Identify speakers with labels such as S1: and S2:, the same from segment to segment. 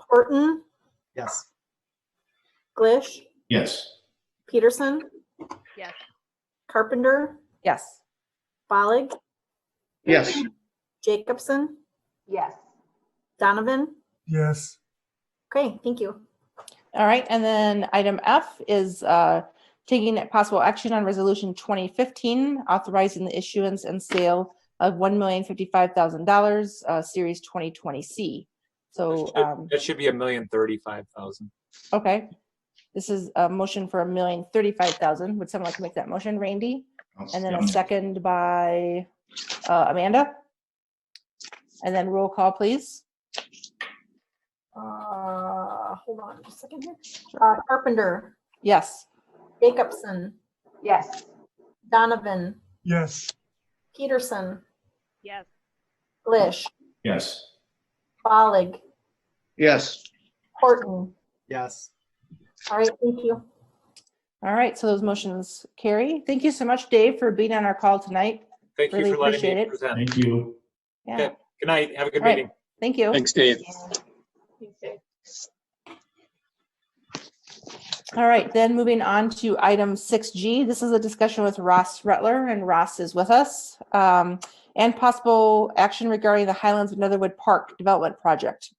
S1: Horton,
S2: Yes.
S1: Glish,
S3: Yes.
S1: Peterson,
S4: Yes.
S1: Carpenter,
S5: Yes.
S1: Bollig,
S3: Yes.
S1: Jacobson,
S4: Yes.
S1: Donovan.
S2: Yes.
S1: Okay, thank you.
S5: All right, and then item F is uh, taking possible action on Resolution 2015, authorizing the issuance and sale of $1,055,000, uh, Series 2020C. So, um,
S6: That should be a million thirty-five thousand.
S5: okay, this is a motion for $1,035,000. Would someone like to make that motion, Randy? And then a second by uh, Amanda? And then roll call, please.
S1: Uh, hold on just a second here. Uh, Carpenter,
S5: Yes.
S1: Jacobson,
S4: Yes.
S1: Donovan,
S2: Yes.
S1: Peterson,
S4: Yes.
S1: Glish,
S3: Yes.
S1: Bollig,
S3: Yes.
S1: Horton.
S2: Yes.
S1: All right, thank you.
S5: All right, so those motions carry. Thank you so much, Dave, for being on our call tonight.
S6: Thank you
S5: Really
S6: for letting
S5: appreciate
S6: me
S5: it.
S6: present.
S3: Thank you.
S5: Yeah,
S6: Okay. Good night. Have a good
S5: All right.
S6: meeting.
S5: thank you.
S7: Thanks, Dave.
S5: All right, then moving on to item six G. This is a discussion with Ross Rutler, and Ross is with us. Um, and possible action regarding the Highlands of Netherwood Park Development Project.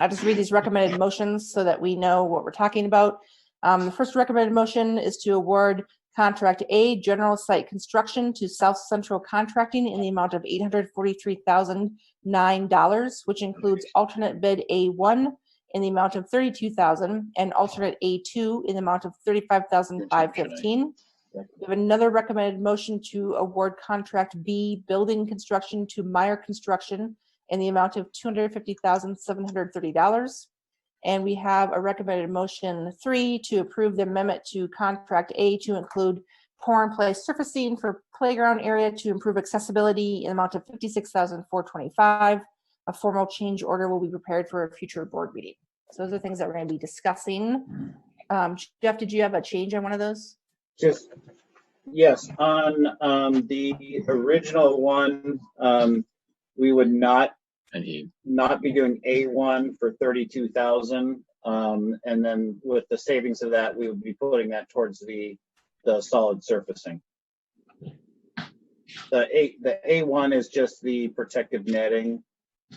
S5: I'll just read these recommended motions so that we know what we're talking about. Um, the first recommended motion is to award contract A, general site construction to South Central Contracting in the amount of eight hundred forty-three thousand nine dollars, which includes alternate bid A one, in the amount of thirty-two thousand and alternate A two in the amount of thirty-five thousand five fifteen. We have another recommended motion to award contract B, building construction to Meyer Construction in the amount of two hundred fifty thousand seven hundred thirty dollars. And we have a recommended motion three to approve the amendment to contract A to include pour and place surfacing for playground area to improve accessibility in the amount of fifty-six thousand four twenty-five. A formal change order will be prepared for a future board meeting. So those are things that we're going to be discussing. Um, Jeff, did you have a change on one of those?
S8: Just, yes, on um, the original one, um, we would not,
S7: And he,
S8: not be doing A1 for 32,000. um, And then with the savings of that, we would be putting that towards the, the solid surfacing. The A, the A1 is just the protective netting,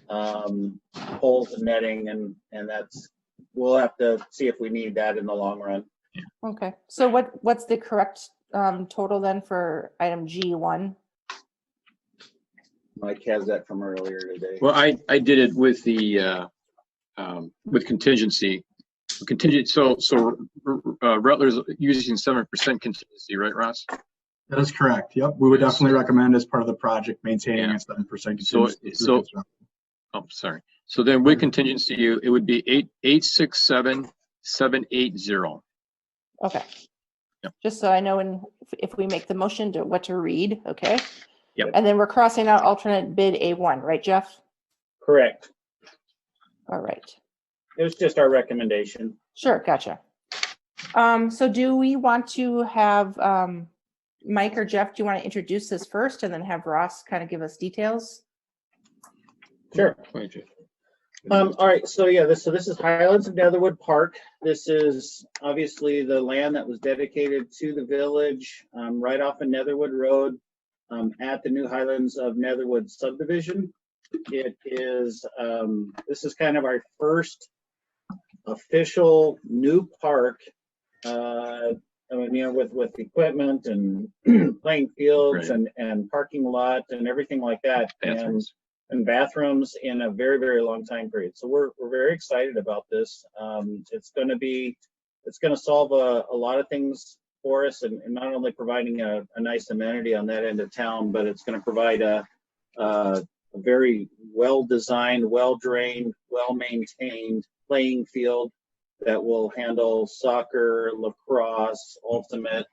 S8: um, poles and netting, and, and that's, we'll have to see if we need that in the long run.
S5: Okay, so what, what's the correct um, total then for item G1?
S8: Mike has that from earlier today.
S7: well, I, I did it with the, uh, um, with contingency. Contingent, so, so uh, Rutler's using seven percent contingency, right, Ross?
S2: That is correct. Yep. We would
S7: Yes.
S2: definitely recommend as part of the project maintaining
S7: Yeah.
S2: a seven percent.
S7: So- so- Oh, sorry. So then with contingency, you- it would be eight, eight, six, seven, seven, eight, zero.
S5: Okay.
S7: Yep.
S5: Just so I know when, if we make the motion to what to read, okay?
S7: Yep.
S5: And then we're crossing out alternate bid A1, right, Jeff?
S8: Correct.
S5: All right,
S8: It was just our recommendation.
S5: sure, gotcha. Um, so do we want to have, um, Mike or Jeff, do you want to introduce this first and then have Ross kind of give us details?
S8: Sure. Um, all right, so yeah, this, so this is Highlands of Netherwood Park. This is obviously the land that was dedicated to the village, um, right off of Netherwood Road, um, at the new Highlands of Netherwood subdivision. It is, um, this is kind of our first official new park. Uh, I mean, you know, with, with equipment and playing fields
S7: Right.
S8: and, and parking lot and everything like that. And
S7: Bathrooms.
S8: and bathrooms in a very, very long time period. So we're, we're very excited about this. Um, it's gonna be, it's gonna solve a, a lot of things for us and, and not only providing a, a nice amenity on that end of town, but it's gonna provide a, a very well-designed, well-drained, well-maintained playing field that will handle soccer, lacrosse, ultimate.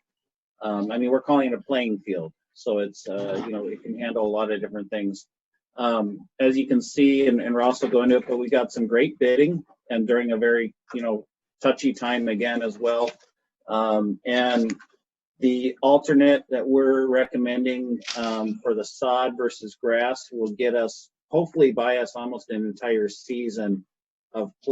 S8: Um, I mean, we're calling it a playing field. So it's, uh, you know, it can handle a lot of different things. Um, as you can see, and, and we're also going to, but we got some great bidding and during a very, you know, touchy time again as well. Um, and the alternate that we're recommending, um, for the sod versus grass will get us, hopefully buy us almost an entire season of